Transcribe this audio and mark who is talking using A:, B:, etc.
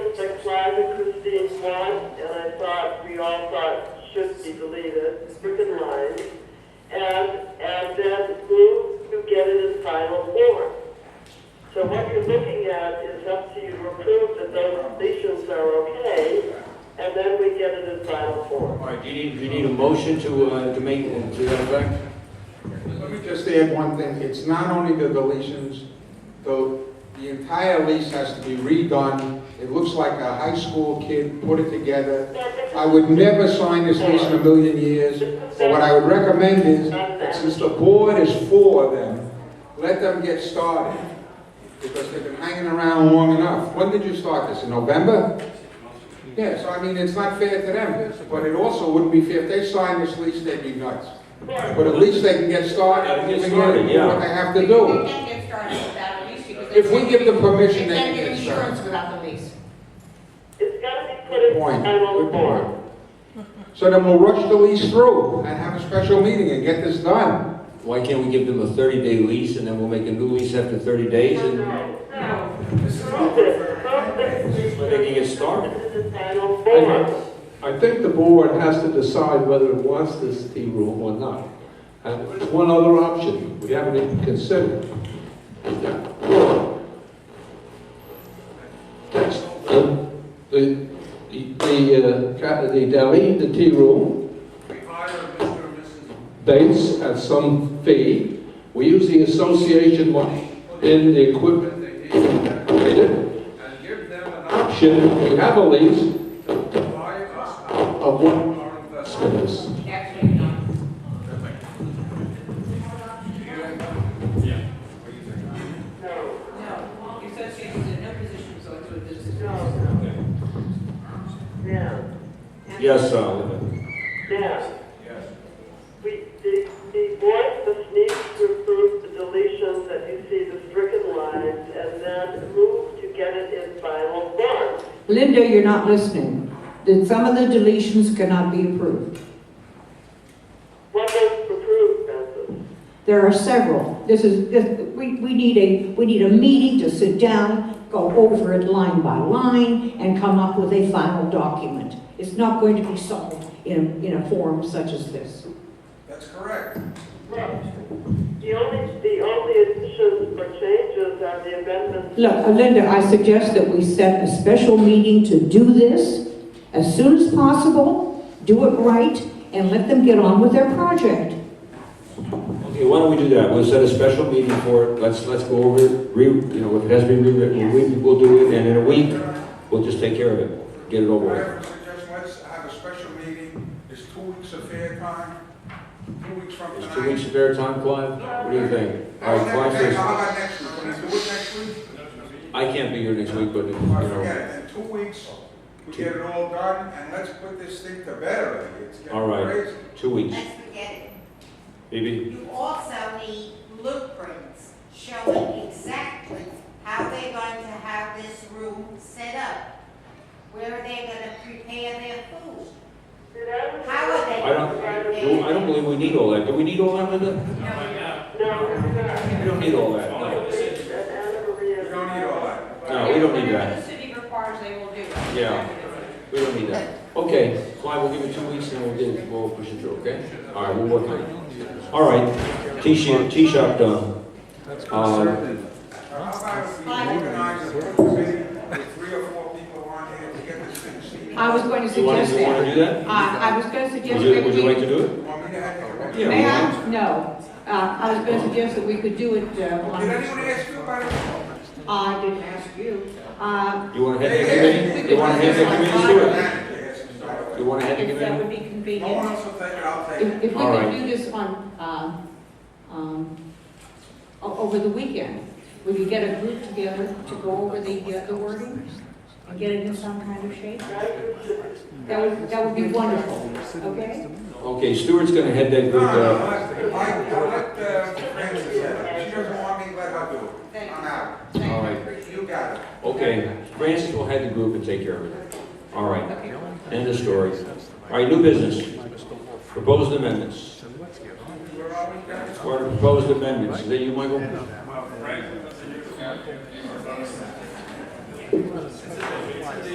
A: want, and I thought, we all thought should be deleted, freaking line. And, and then move to get it in final form. So what you're looking at is up to you to approve that those deletions are okay, and then we get it in final form.
B: All right, do you need, do you need a motion to, uh, to make, to that effect?
C: Let me just add one thing, it's not only the deletions, though, the entire lease has to be redone. It looks like a high school kid put it together. I would never sign this lease in a million years, but what I would recommend is, that since the board is for them, let them get started, because they've been hanging around long enough. When did you start this, in November? Yeah, so I mean, it's not fair to them, but it also wouldn't be fair, if they signed this lease, they'd be nuts. But at least they can get started,
B: Get
C: and
B: started,
C: do what they have to do.
D: They can't get started without a lease because. they
C: If we
D: can't
C: give them
D: get-
C: permission, they
D: can't
C: can get started.
D: Insurance without the lease.
A: It's gotta be put in
C: Point,
A: final
C: good
A: form.
C: point. So then we'll rush the lease through and have a special meeting and get this done.
B: Why can't we give them a thirty-day lease and then we'll make a new lease after thirty days and
A: So
B: they can get started?
A: Final form.
E: I think the board has to decide whether it wants this T room or not. And there's one other option we haven't even considered. That's the, the, the, uh, ca- the deli, the tea room. Dates at some fee. We use the association money in the equipment they did.
F: and give them an
E: Option, we have a lease
F: option to buy us out
E: of one
F: our investment.
E: business.
D: Actually, no.
A: No,
D: No, the association's in no position to go into a business.
A: no, no. Yeah,
B: Yes, uh, Oliver.
A: yeah. We, the, the board must need to approve the deletions that you see the stricken lines and then move to get it in final form.
G: Linda, you're not listening. That some of the deletions cannot be approved.
A: What was approved, Francis?
G: There are several. This is, this- we, we need a, we need a meeting to sit down, go over it line by line, and come up with a final document. It's not going to be solved in, in a forum such as this.
F: That's correct.
A: Right. The only, the only additions or changes are the amendments.
G: Look, uh, Linda, I suggest that we set a special meeting to do this as soon as possible, do it right, and let them get on with their project.
B: Okay, why don't we do that? We'll set a special meeting for it. Let's, let's go over it, re, you know, if it has been rewritten, we, we'll do it, and in a week, we'll just take care of it, get it
F: I
B: over with.
F: have a suggestion, let's have a special meeting, it's two weeks of fair time, two weeks from
B: Is
F: tonight.
B: two weeks a fair time, Clive? What do you think? All right,
F: That's
B: Clive
F: next-
B: says,
F: How about next week, can I do it next week?
B: I can't be here next week, but, you
F: Or forget
B: know,
F: it, in two weeks, we get it all done, and let's put this thing to bed already, it's
B: all
F: getting
B: right,
F: crazy.
B: two weeks.
H: Let's forget it.
B: Maybe,
H: You also need blueprints showing exactly how they're going to have this room set up, where they're gonna prepare their food.
A: Did I-
H: How are they?
B: I don't-
H: preparing
B: I don't believe we need all that. Do we need all that, Linda?
A: No, it's not.
B: We don't need all that, no.
F: You don't need all that.
B: No, we don't
D: Whatever
B: need that.
D: the city requires, they will do.
B: Yeah. We don't need that. Okay, Clive, we'll give you two weeks and we'll get, it- we'll push it through, okay? All right, we'll work on it. All right, T-shirt, T-shirt done. Um,
F: How about we organize a group committee with three or four people on here to get this thing seen?
G: I was going to
B: You want
G: suggest
B: to, you want to
G: that.
B: do that?
G: I, I was going to
B: Would
G: suggest
B: you,
G: that
B: would you like
G: we...
B: to do it?
F: Want me to have a
B: Yeah.
G: May I? No. Uh, I was going to suggest that we could do it, uh,
F: Did
G: on-
F: anyone ask you about it?
G: I didn't ask you. Uh,
B: You want to head the committee? You want to head the committee to it? You want to head the
G: if that
B: committee?
G: would be
F: No one
G: convenient.
F: else will take it, I'll take
G: If,
F: it.
G: if we
B: All right.
G: could do this on, um, um, o- over the weekend, we could get a group together to go over the, uh, the wording and get it in some kind of shape. That would, that would be wonderful, okay?
B: Okay, Stuart's going to head that
F: No,
B: group uh,
F: no, no,
B: up.
F: I, I let uh, Francis, if she doesn't want me, let her do it. I'm out.
D: Thank you,
B: All
D: I
B: right.
D: appreciate it.
F: You got it.
B: Okay, Francis will head the group and take care of it. All right,
D: Okay.
B: end of story. All right, new business. Proposed amendments. What are proposed amendments? Is that you, Michael?